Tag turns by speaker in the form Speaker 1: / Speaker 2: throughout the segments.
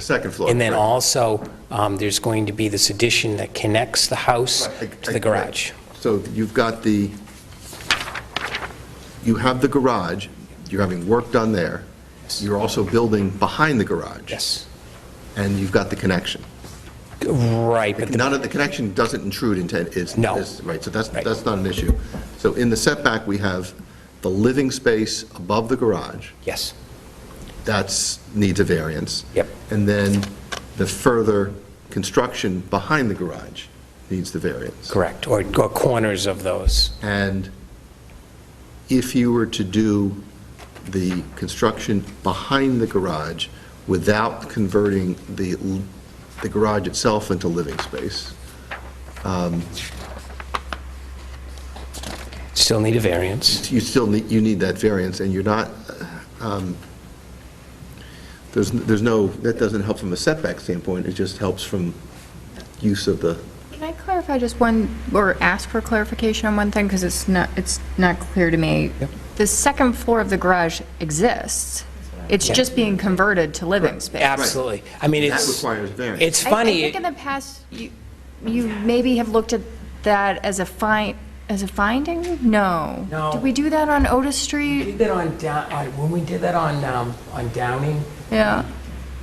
Speaker 1: Second floor.
Speaker 2: And then
Speaker 1: right.
Speaker 2: also, um, there's going to be this addition that connects the house
Speaker 1: Right.
Speaker 2: to the garage.
Speaker 1: So you've got the, you have the garage, you're having work done there, you're also building behind the garage.
Speaker 2: Yes.
Speaker 1: And you've got the connection.
Speaker 2: Right, but the-
Speaker 1: None of, the connection doesn't intrude into, is.
Speaker 2: No.
Speaker 1: is- Right, so that's,
Speaker 2: Right.
Speaker 1: that's not an issue. So in the setback, we have the living space above the garage,
Speaker 2: yes,
Speaker 1: that's, needs a variance.
Speaker 2: Yep.
Speaker 1: And then the further construction behind the garage needs the variance.
Speaker 2: correct, or or corners of those.
Speaker 1: And if you were to do the construction behind the garage without converting the, l- the garage itself into living space,
Speaker 2: Still need a variance.
Speaker 1: you still need, you need that variance, and you're not, um, there's, there's no, that doesn't help from a setback standpoint, it just helps from use of the,
Speaker 3: Can I clarify just one, or ask for clarification on one thing, because it's not, it's not clear to me? The second floor of the garage exists. It's
Speaker 2: Yeah.
Speaker 3: just being converted to living space.
Speaker 2: Absolutely. I mean,
Speaker 1: That
Speaker 2: it's...
Speaker 1: requires variance.
Speaker 2: It's
Speaker 3: I- I
Speaker 2: funny,
Speaker 3: think in the past, you, you maybe have looked at that as a find, as a finding? No.
Speaker 4: No.
Speaker 3: Did we do that on Otis
Speaker 4: We
Speaker 3: Street?
Speaker 4: did that on, Dow- uh, when we did that on, um, on Downing,
Speaker 3: Yeah.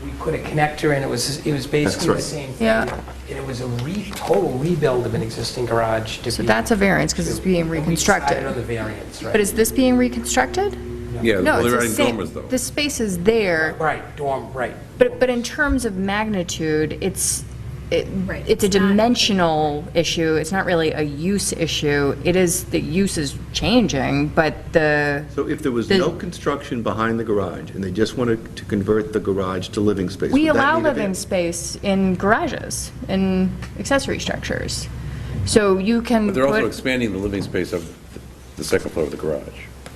Speaker 4: we put a connector in, it was, it was basically
Speaker 1: right.
Speaker 4: the same thing.
Speaker 3: Yeah.
Speaker 4: And it was a re, total rebuild of an existing garage to
Speaker 3: So
Speaker 4: be-
Speaker 3: that's a variance, 'cause it's being
Speaker 4: But We
Speaker 3: reconstructed.
Speaker 4: decided on the variance, right?
Speaker 3: But is this being reconstructed?
Speaker 5: Yeah,
Speaker 3: No,
Speaker 5: well,
Speaker 3: it's
Speaker 5: they're
Speaker 3: the
Speaker 5: adding dormers,
Speaker 3: same,
Speaker 5: though.
Speaker 3: the space is there.
Speaker 4: Right, dorm, right.
Speaker 3: But, but in terms of magnitude, it's, it- it's a dimensional issue, it's not really a use issue. It is, the use is changing, but the,
Speaker 1: so if there was
Speaker 3: The-
Speaker 1: no construction behind the garage, and they just wanted to convert the garage to living space,
Speaker 3: we
Speaker 1: would that
Speaker 3: allow
Speaker 1: need a
Speaker 3: living
Speaker 1: variance?
Speaker 3: space in garages, in accessory structures. So you can
Speaker 5: But they're also
Speaker 3: put,
Speaker 5: expanding the living space of the second floor of the garage.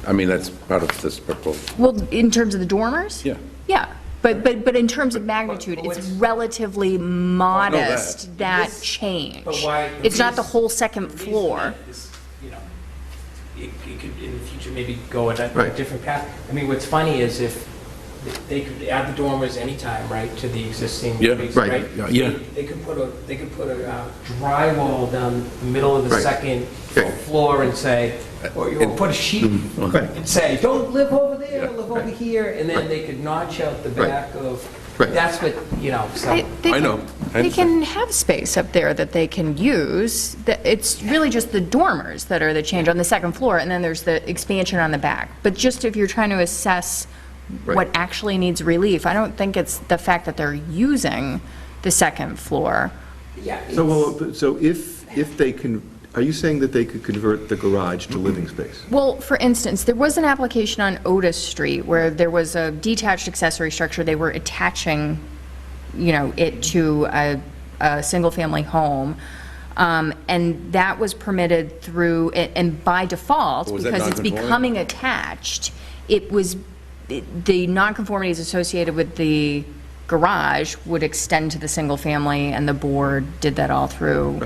Speaker 5: I mean, that's part of this proposal.
Speaker 3: well, in terms of the dormers?
Speaker 5: Yeah.
Speaker 3: Yeah, but, but, but in terms of magnitude, it's
Speaker 4: what's-
Speaker 3: relatively modest, that
Speaker 4: This-
Speaker 3: change.
Speaker 4: But why-
Speaker 3: It's not the
Speaker 4: reason-
Speaker 3: whole second
Speaker 4: the reason
Speaker 3: floor.
Speaker 4: that is, You know, it it could, in the future, maybe go a di-
Speaker 1: Right.
Speaker 4: different path. I mean, what's funny is if, they could add the dormers anytime, right, to the existing
Speaker 5: Yeah,
Speaker 4: base,
Speaker 1: right,
Speaker 4: right?
Speaker 5: yeah, yeah.
Speaker 4: They could put a, they could put a uh, drywall down the middle of the
Speaker 1: Right.
Speaker 4: second
Speaker 1: Okay. Mm,
Speaker 4: floor and say, or you- or put a sheet and say, don't live over there,
Speaker 5: Yeah,
Speaker 4: live over here, and then they could notch out the
Speaker 1: Right.
Speaker 4: back of,
Speaker 1: Right.
Speaker 4: that's what, you know, so.
Speaker 3: They- they
Speaker 5: I
Speaker 3: can-
Speaker 5: know. I
Speaker 3: They can have space up there that they can use. That- It's really just the dormers that are the change on the second floor, and then there's the expansion on the back. But just if you're trying to assess what
Speaker 1: Right.
Speaker 3: actually needs relief, I don't think it's the fact that they're using the second floor.
Speaker 4: yeah,
Speaker 1: So,
Speaker 4: it's-
Speaker 1: well, but- so if, if they can, are you saying that they could convert the garage to living space?
Speaker 3: Well, for instance, there was an application on Otis Street where there was a detached accessory structure. They were attaching, you know, it to a, a single-family home. Um, and that was permitted through, a- and by default,
Speaker 5: Was that
Speaker 3: because it's
Speaker 5: non-conforming?
Speaker 3: becoming attached, it was, it- the nonconformities associated with the garage would extend to the single-family, and the board did that all through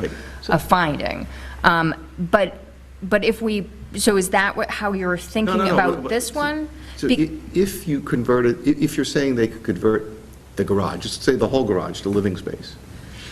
Speaker 3: a finding. Um, But, but if we, so is that what, how you're
Speaker 1: No,
Speaker 3: thinking
Speaker 1: no, no, what-
Speaker 3: about
Speaker 1: what-
Speaker 3: this one?
Speaker 1: So
Speaker 3: Be-
Speaker 1: i- if you converted, i- if you're saying they could convert the garage, just say the whole garage to living space,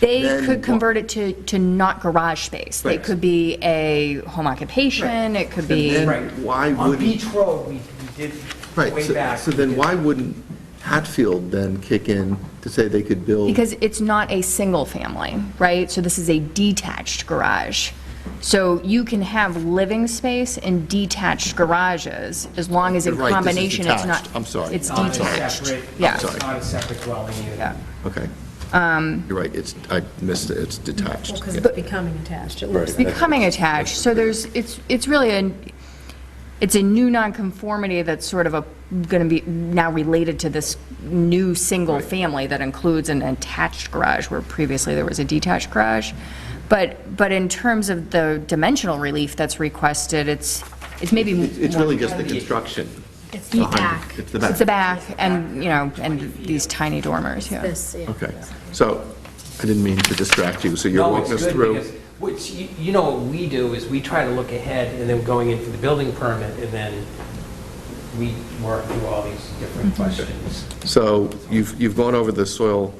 Speaker 3: They
Speaker 1: then
Speaker 3: could
Speaker 1: what-
Speaker 3: convert it to, to not garage space. They
Speaker 1: Right.
Speaker 3: could be a home occupation, it could be.
Speaker 1: then-
Speaker 4: Right.
Speaker 1: Why
Speaker 4: On
Speaker 1: wouldn't-
Speaker 4: Beach Road, we we did
Speaker 1: right?
Speaker 4: way
Speaker 1: so-
Speaker 4: back.
Speaker 1: So
Speaker 4: we
Speaker 1: then
Speaker 4: did-
Speaker 1: why wouldn't Hatfield then kick in to say they could build?
Speaker 3: Because it's not a single family, right? So this is a detached garage. So you can have living space in detached garages as long as in
Speaker 1: You're right, this is
Speaker 3: combination it's not.
Speaker 1: detached. I'm sorry.
Speaker 3: It's
Speaker 4: Not a
Speaker 3: detached.
Speaker 4: separate-
Speaker 3: Yeah.
Speaker 1: sorry.
Speaker 4: Not a separate dwelling unit.
Speaker 3: Yeah.
Speaker 1: Okay.
Speaker 3: um,
Speaker 1: You're right, it's, I missed it, it's detached.
Speaker 6: Because it's becoming attached. It looks
Speaker 5: Right.
Speaker 6: like,
Speaker 3: Becoming attached, so there's, it's, it's really a, it's a new nonconformity that's sort of a, going to be now related to this new single family that includes an attached garage where previously there was a detached garage. But, but in terms of the dimensional relief that's requested, it's, it's maybe
Speaker 1: It's it's
Speaker 3: more.
Speaker 1: really just the construction.
Speaker 6: it's the
Speaker 1: behind it.
Speaker 6: back,
Speaker 1: It's the
Speaker 3: It's the
Speaker 1: back,
Speaker 3: back and, you know, and these tiny dormers, yeah.
Speaker 6: this, yeah.
Speaker 1: okay. So I didn't mean to distract you, so you're
Speaker 4: No, it's
Speaker 1: walking us
Speaker 4: good
Speaker 1: through.
Speaker 4: because- Which, you you know, what we do is we try to look ahead and then going in for the building permit and then we work through all these different questions.
Speaker 1: So you've, you've gone over the soil